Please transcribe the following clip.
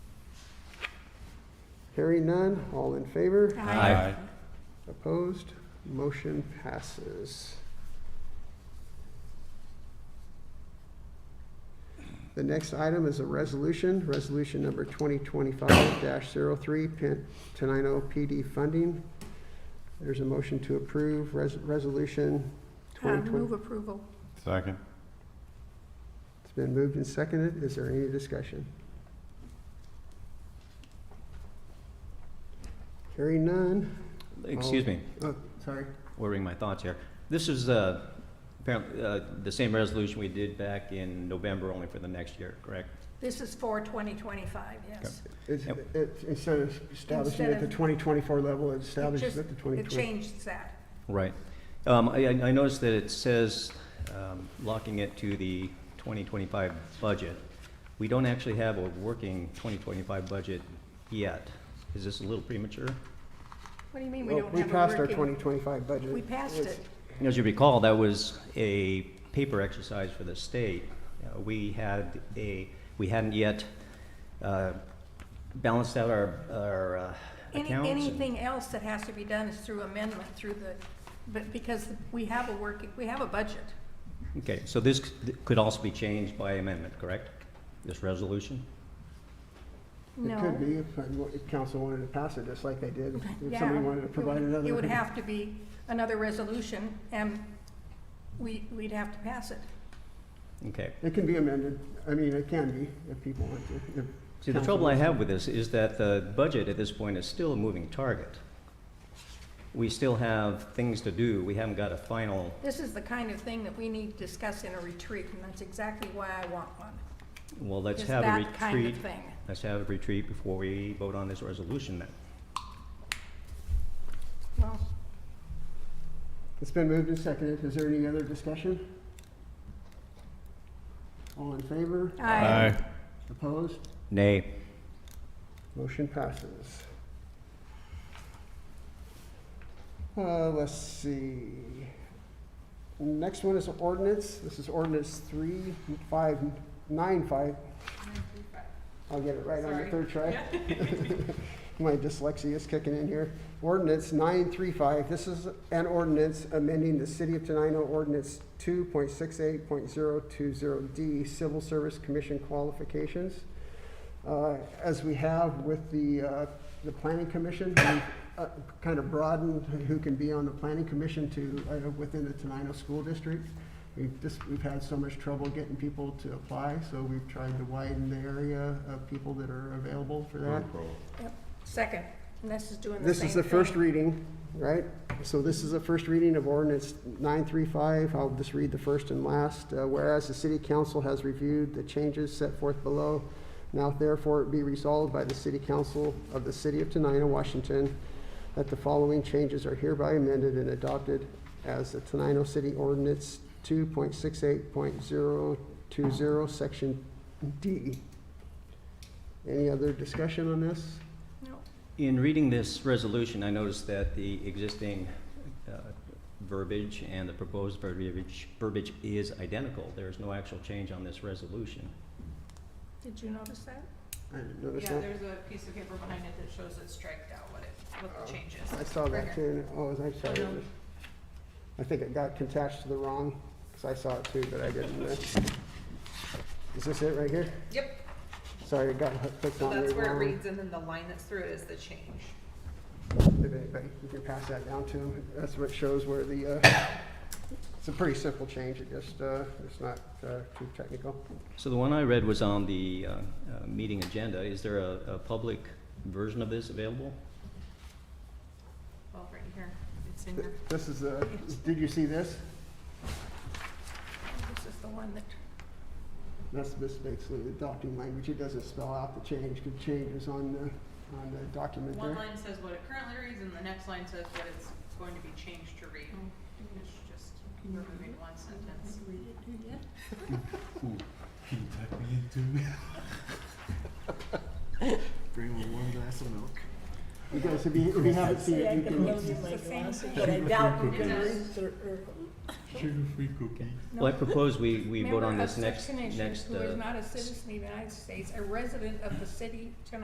Hearing none, all in favor? Aye. Opposed? Motion passes. The next item is a resolution, resolution number 2025-03, Pin- Tenino PD funding. There's a motion to approve res- resolution Uh, 2020. Move approval. Second. It's been moved and seconded. Is there any discussion? Hearing none. Excuse me, Oh, sorry. ordering my thoughts here. This is uh, apparently uh, the same resolution we did back in November, only for the next year, correct? This is for 2025, yes. It's, Yep. it's, instead of establishing Instead at the of- twenty twenty-four level, it's established just- at the twenty It twenty. changed that. Right. Um, I I- I noticed that it says um, locking it to the 2025 budget. We don't actually have a working 2025 budget yet. Is this a little premature? What do you mean we Well, don't we have a passed our working- twenty twenty-five budget. We passed It's- it. As you recall, that was a paper exercise for the state. Uh, We had a, we hadn't yet uh, balanced out our, our uh, Any, accounts. and- anything else that has to be done is through amendment, through the, but because we have a working, we have a budget. Okay, so this c- could also be changed by amendment, correct? This resolution? No. It could be if, uh, if council wanted to pass it, just like they did, if Yeah. somebody wanted to It provide would- another. It would have to be another resolution, and we, we'd have to pass it. Okay. It can be amended. I mean, it can be if people want to. if See, the council trouble I wants to. have with this is that the budget at this point is still a moving target. We still have things to do. We haven't got a final, This is the kind of thing that we need to discuss in a retreat, and that's exactly why I want one. well, let's is have a that kind of retreat. thing. Let's have a retreat before we vote on this resolution then. Well, It's been moved and seconded. Is there any other discussion? All in favor? I, Opposed? Nay. Motion passes. Uh, let's see. Next one is ordinance. This is ordinance three, five, nine, five. I'll get it right on the third try. My dyslexia is kicking in here. Ordinance nine, three, five. This is an ordinance amending the City of Tenino Ordinance two point six eight point zero two zero D Civil Service Commission qualifications. Uh, As we have with the, uh, the planning commission, we've uh, kind of broadened who can be on the planning commission to, uh, within the Tenino School District. We've just, we've had so much trouble getting people to apply, so we've tried to widen the area of people that are available for that. second, and this is doing the same This thing. is the first reading, right? So this is the first reading of ordinance 935. I'll just read the first and last. Uh, Whereas the city council has reviewed the changes set forth below, now therefore it be resolved by the city council of the city of Tenino, Washington, that the following changes are hereby amended and adopted as the Tenino City Ordinance 2.68.020, Section D. Any other discussion on this? No. In reading this resolution, I noticed that the existing uh, verbiage and the proposed verbiage, verbiage is identical. There is no actual change on this resolution. Did you notice that? I didn't notice Yeah, that. there's a piece of paper behind it that shows it striked out what it, what the change Oh, I is. saw that Right too, and, oh, I'm sorry. it was- I think it got attached to the wrong, because I saw it too, but I didn't. uh, Is this it right here? Yep, Sorry, it got clicked so on that's the where it wrong. reads, and then the line that's through it is the change. If anybody- You can pass that down to him. That's what shows where the, uh, it's a pretty simple change, it just, uh, it's not uh, too technical. So the one I read was on the uh, uh, meeting agenda. Is there a, a public version of this available? Well, right here, it's in Th- your, This is, uh, did you see this? This is the one that, That's this basically adopting language, it doesn't spell out the change, because change is on the, on the document one there. line says what it currently reads, and the next line says what it's going to be changed to read. It's just removing one sentence. Can you tuck me in too? Bring me one glass of milk. You guys, if you, if you haven't seen it, you can. it's the same But thing. I doubt we It can does. read through, Sugar-free cookie. Well, I propose we, we vote Member on of this such next, nation next. Who is uh, not a citizen of the United States, a resident of the city tonight.